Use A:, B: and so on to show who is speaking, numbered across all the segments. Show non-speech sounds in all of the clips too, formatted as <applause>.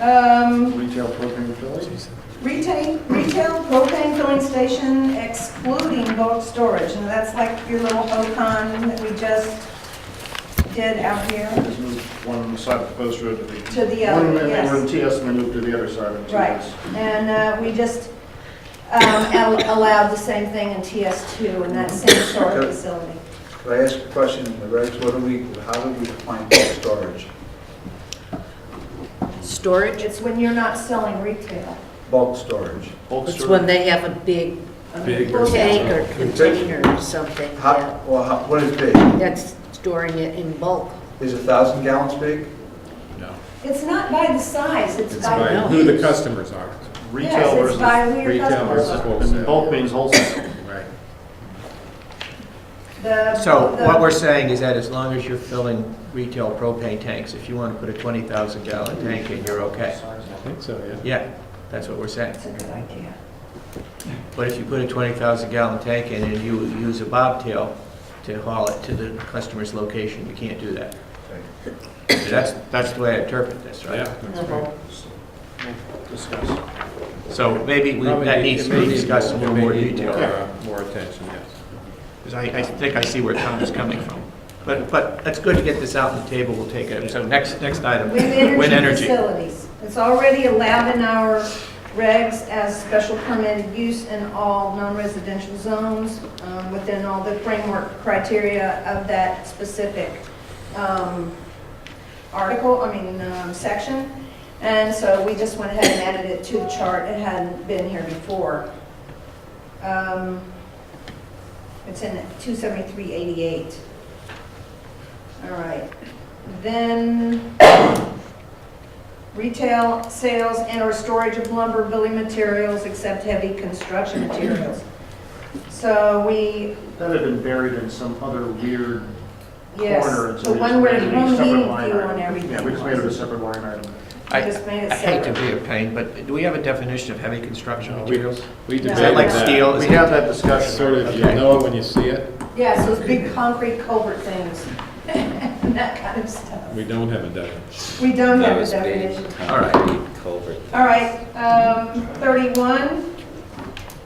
A: Um,
B: Retail propane fillings?
A: Retail, retail propane filling station excluding bulk storage, and that's like your little OCON that we just did out here
B: Just moved one on the side of the post road to the.
A: to the other,
B: One minute they were in
A: yes.
B: TS and they moved to the other side of
A: Right,
B: TS.
A: and uh, we just um, al- allowed the same thing in TS2 in that same storage
C: Okay.
A: facility.
C: Could I ask a question in regards, what do we, how do we define bulk storage?
D: Storage,
A: It's when you're not selling retail.
C: Bulk storage.
B: Bulk
D: it's
B: storage.
D: when they have a big um,
E: Big or
D: tank
E: something.
D: or container or something, yeah.
C: How, well, how- what is big?
D: That's storing it in bulk.
C: Is a thousand gallons big?
E: No.
A: It's not by the size, it's
E: It's
A: by
E: by
D: know.
E: who the customers are.
B: Retail
A: Yes, it's by
B: versus,
A: who your
E: Retail
A: customers
E: versus
A: are.
B: and bulk means wholesale.
E: Right.
A: The-
F: So
A: the-
F: what we're saying is that as long as you're filling retail propane tanks, if you want to put a 20,000 gallon tank in, you're okay.
E: I think so, yeah.
F: Yeah, that's what we're saying.
A: That's a good idea.
F: But if you put a 20,000 gallon tank in and you use a bobtail to haul it to the customer's location, you can't do that. That's, that's the way I interpret this, right?
E: Yeah, that's right.
B: Discuss.
F: So maybe we-
E: Probably
F: that
E: need-
F: needs
E: it
F: to
E: may
F: be
E: need
F: discussed in a little
E: it may
F: more
E: need
F: detail.
E: more, uh, More attention, yes.
F: Because I, I think I see where Tom is coming from. But, but it's good to get this out on the table, we'll take it. So next, next item,
A: Wind
F: wind
A: energy
F: energy.
A: facilities. It's already allowed in our regs as special permitted use in all non-residential zones um, within all the framework criteria of that specific um, article, I mean, um, section. And so we just went ahead and added it to the chart. It hadn't been here before. Um, It's in 27388. All right. Then retail sales and/or storage of lumber, building materials, except heavy construction materials. So we,
B: That had been buried in some other weird
A: yes,
B: corner. and so
A: the
B: we
A: one
B: just
A: where
B: made it a
A: one
B: separate
A: meeting view
B: line item.
A: on everything.
B: Yeah, we just made it a
A: was.
B: separate line item.
F: I,
A: Just made it
F: I hate to
A: separate.
F: be a pain, but do we have a definition of heavy construction
E: No, we-
F: materials?
E: We
A: No.
F: Is that
E: debated
F: like
E: that.
F: steel?
B: We
F: Is
B: had
F: it-
B: that discussion.
E: Sort of, you
F: Okay.
E: know it when you see it.
A: Yes, those big concrete culvert things, <laughs> and that kind of stuff.
E: We don't have a definition.
A: We don't
G: That
A: have a
G: was big.
A: definition.
F: All right.
G: Culvert.
A: All right, um, 31,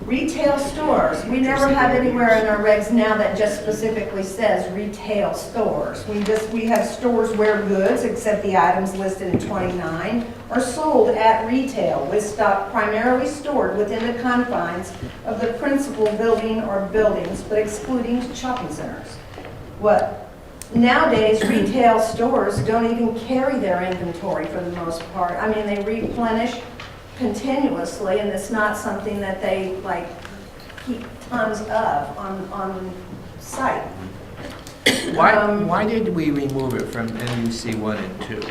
A: retail stores. We never have anywhere in our regs now that just specifically says retail stores. We just, we have stores where goods, except the items listed in 29, are sold at retail with stock primarily stored within the confines of the principal building or buildings, but excluding shopping centers. What, nowadays retail stores don't even carry their inventory for the most part. I mean, they replenish continuously, and it's not something that they like keep tons of on, on site.
F: Why,
A: Um,
F: why did we remove it from MUC one and two?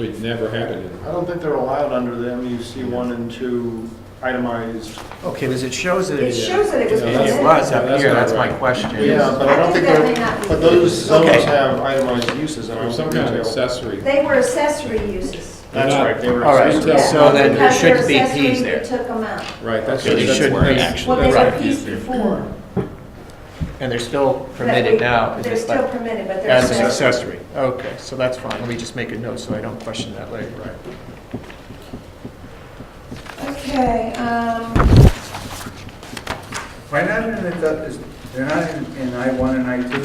E: We never had it in.
B: I don't think they're allowed under the MUC one and two itemized.
F: Okay, because it shows that
A: It
F: it
A: shows that it was.
E: Yeah,
F: it
E: that's-
A: presented.
F: was
E: Yeah,
F: up
E: that's
F: here,
E: not
F: that's my
E: right.
F: question.
B: Yeah, but I don't
A: I think
B: think
A: that may
B: they're,
A: not be-
B: but those zones
F: Okay.
B: have itemized uses. and I
E: Or
B: don't
E: some
B: think
E: kind of
B: retail-
E: accessory.
A: They were accessory uses.
B: That's right, they were.
F: All right,
B: accessory.
E: Yeah.
F: so then there
A: Because they're
F: shouldn't be
A: accessory,
F: Ps
A: we
F: there.
A: took them out.
E: Right, that's.
F: So they
E: that's-
F: shouldn't
E: that's-
F: be.
A: Well,
E: that's
A: they
E: right.
A: were Ps before.
F: And they're still permitted
A: But
F: now.
A: we-
F: is
A: They're
F: it
A: still
F: like-
A: permitted, but they're
F: As an
A: accessory.
F: accessory. Okay, so that's fine. Let me just make a note so I don't question that later. Right.
A: Okay, um,
C: Why not in the, du- is- they're not in, in I one and I two?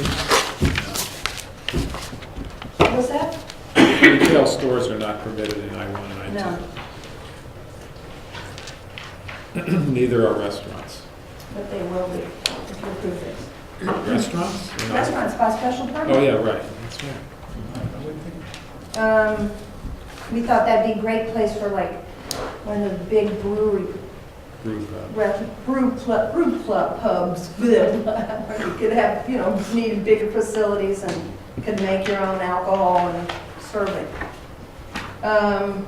A: what was that?
E: Retail stores are not permitted in I one and
A: No,
E: I two. <clears throat> Neither are restaurants.
A: but they will be if you approve it.
E: Restaurants? They're not-
A: Restaurants by special permit.
E: Oh, yeah, right, that's right.
A: Um, we thought that'd be a great place for like one of the big brewery,
E: Group, uh,
A: re- brew club, brew club <laughs> pubs. Where you could have, you know, <laughs> need bigger facilities and could make your own alcohol and serve it. Um,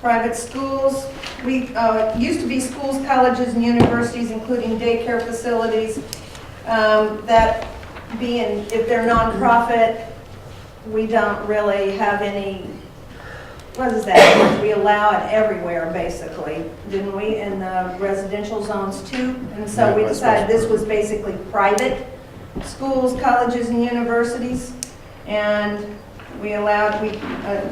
A: private schools, we, uh, used to be schools, colleges, and universities, including daycare facilities, um, that being, if they're nonprofit, we don't really have any, what is that? We allow it everywhere, basically, didn't we, in the residential zones too? And so we
E: Yeah, by
A: decided this
E: special
A: was basically private schools, colleges, and universities, and we allowed, we, uh,